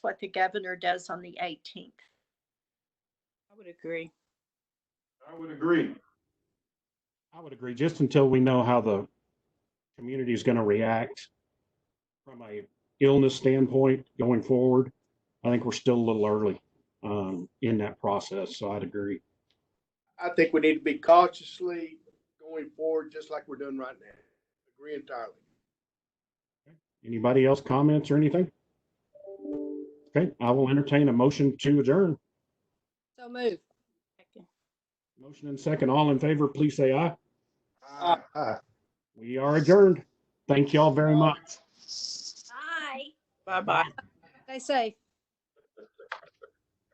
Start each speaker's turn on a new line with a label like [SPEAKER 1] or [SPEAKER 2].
[SPEAKER 1] what the governor does on the 18th.
[SPEAKER 2] I would agree.
[SPEAKER 3] I would agree.
[SPEAKER 4] I would agree, just until we know how the community is going to react from a illness standpoint going forward. I think we're still a little early um, in that process, so I'd agree.
[SPEAKER 5] I think we need to be cautiously going forward, just like we're doing right now. Agree entirely.
[SPEAKER 4] Anybody else comments or anything? Okay, I will entertain a motion to adjourn.
[SPEAKER 2] So move.
[SPEAKER 4] Motion and second, all in favor, please say aye.
[SPEAKER 5] Aye.
[SPEAKER 4] We are adjourned. Thank y'all very much.
[SPEAKER 1] Bye.
[SPEAKER 2] Bye-bye.
[SPEAKER 6] Stay safe.